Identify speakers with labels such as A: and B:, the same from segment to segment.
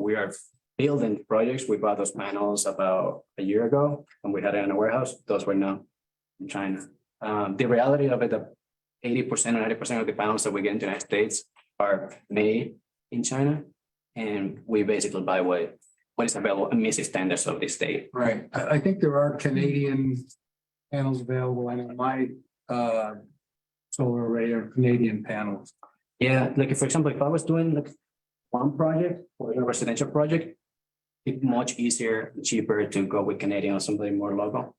A: we are building projects. We bought those panels about a year ago and we had it in a warehouse. Those were now in China. Um, the reality of it, the eighty percent or ninety percent of the panels that we get in the United States are made in China. And we basically buy what, what is available and meets the standards of the state.
B: Right, I, I think there are Canadian panels available, I know my, uh, solar array are Canadian panels.
A: Yeah, like for example, if I was doing like one project or a residential project, it's much easier, cheaper to go with Canadian or something more local.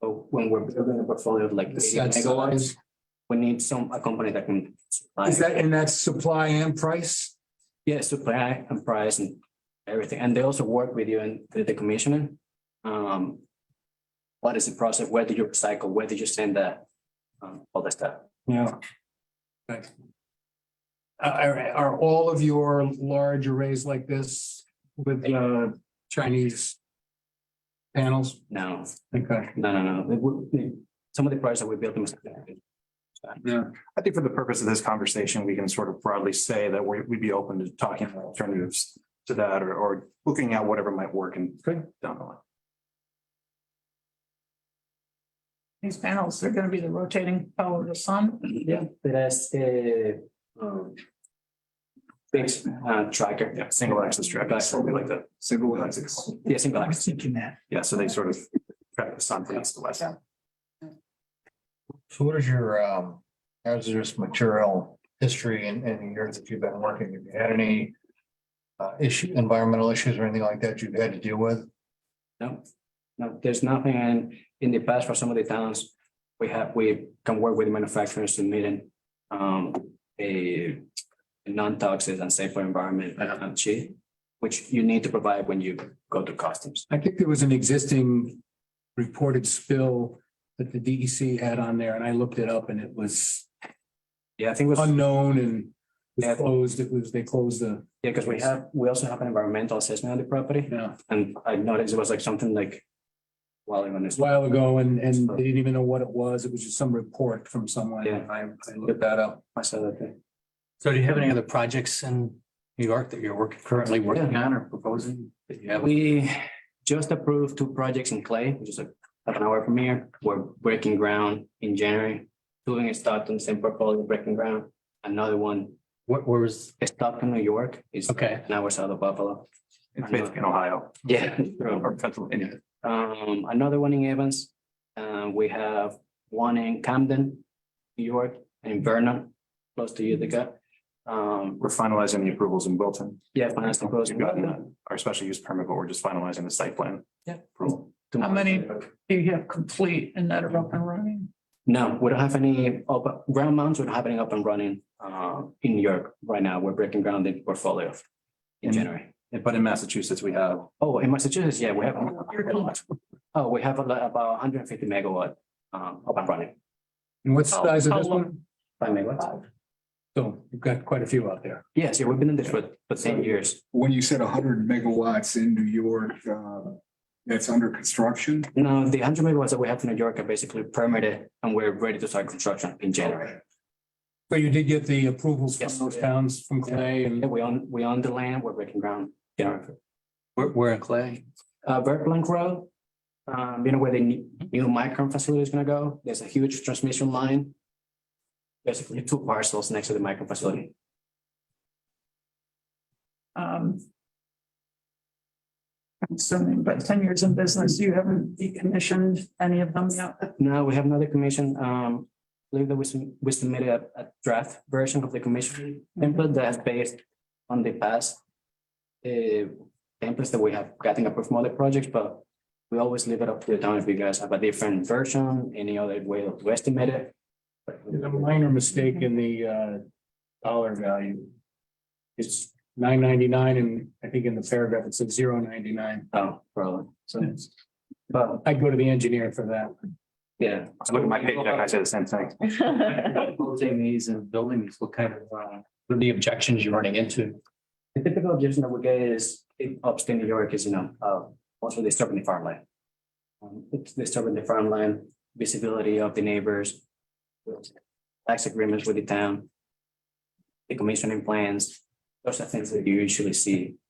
A: But when we're building a portfolio of like
B: Is
A: 80
B: that
A: megawatts, we need some, a company that can. supply-
B: Is that, and that's supply and price?
A: Yeah, supply and price and everything. And they also work with you in the the commissioning. Um, what is the process? Where did you recycle? Where did you send that? Um, all that stuff.
B: Yeah. Thanks. Uh, Are, are all of your large arrays like this with, uh, Chinese panels?
A: No,
B: Okay.
A: no, no, no. We- we- Some of the projects that we built. them was-
B: Yeah.
C: I think for the purpose of this conversation, we can sort of broadly say that we, we'd be open to talking about alternatives to that or, or looking at whatever might work and down the line.
D: These panels, they're gonna be the rotating power of the sun.
A: Yeah, that's a um. Thanks, uh, tracker.
C: Yeah, single access track, something like that.
B: Single
A: Yeah, single axis.
C: Yeah, so they sort of track the sun from east to west.
E: So what is your, um, how's this material history and, and the years that you've been working? Have you had any? Uh, issue, environmental issues or anything like that you've had to deal with?
A: No, no, there's nothing. And in the past, for some of the towns, we have, we can work with manufacturers to meet in um a non-toxic and safer environment, uh, sheet, which you need to provide when you go to customs.
B: I think there was an existing reported spill that the DEC had on there, and I looked it up and it was
A: Yeah, I think it was, yeah,
B: unknown and
A: Yeah.
B: was closed, it was, they closed the,
A: because we have, we also have an environmental assessment on the property.
B: yeah,
A: And I noticed it was like something like while even
B: a while ago and, and they didn't even know what it was. It was just some report from someone.
A: Yeah.
B: I, I looked that up.
A: I saw that thing.
F: So do you have any other projects in New York that you're working, currently working on or proposing? that you have?
A: We just approved two projects in Clay, which is a half an hour from here. We're breaking ground in January. Doing a Stockton, same portfolio, breaking ground. Another one,
F: Where, where was,
A: Stockton, New York, is
F: okay,
A: an hour south of Buffalo.
C: It's based in Ohio
A: Yeah.
C: or Pennsylvania.
A: Um, another one in Evans. Uh, we have one in Camden, New York, and in Vernon, close to Utica. Um,
C: We're finalizing the approvals in Wilton.
A: yeah, finance proposal.
C: We've gotten uh, our special use permit, but we're just finalizing the site plan.
A: Yeah.
C: Approval.
D: How many do you have complete and that are up and running?
A: No, we don't have any open ground mounts are happening up and running uh in New York right now. We're breaking ground in portfolio in
C: Mhm.
A: January.
C: But in Massachusetts, we have
A: Oh, in Massachusetts, yeah, we have. Oh, we have a lot- about hundred and fifty megawatt um up and running,
B: And what's
F: Oh,
B: the
D: How-
B: size of
D: how
B: this
D: long?
B: one?
A: five megawatts.
B: So you've got quite a few out there.
A: Yes, yeah, we've been in this for for ten years.
G: when you said hundred megawatts in New York, uh, that's under construction?
A: Now, the hundred megawatts that we have in New York are basically permitted and we're ready to start construction in January.
B: So you did get the approvals from
A: Yes.
B: those towns from Clay
A: Yeah,
B: and
A: we own, we own the land, we're breaking ground. January.
F: where, where in Clay?
A: uh, Verplank Road. Um, you know where the new new micron facility is gonna go? There's a huge transmission line. Basically two parcels next to the micron facility.
D: Um. I'm assuming about ten years in business, you haven't decommissioned any of them yet.
A: Now, we have another commission, um, I believe that we, sub- we submitted a, a draft version of the commission template that's based on the past uh, templates that we have gotten approved from other projects, but we always leave it up to the town if you guys have a different version, any other way to estimate it.
B: there's a minor mistake in the, uh, dollar value. It's nine ninety-nine and I think in the paragraph it says zero ninety-nine.
A: Oh, probably. So, but
B: I'd go to the engineer for that.
A: yeah.
C: I look at my paycheck, I say the same thing.
F: Building these and building these, what kind of, uh, what are the objections you're running into?
A: The typical objection that we get is in upstate New York is, you know, uh, also disturbing the farmland. Um, It's disturbing the farmland, visibility of the neighbors. Tax agreements with the town. The commissioning plans, those are things that you usually see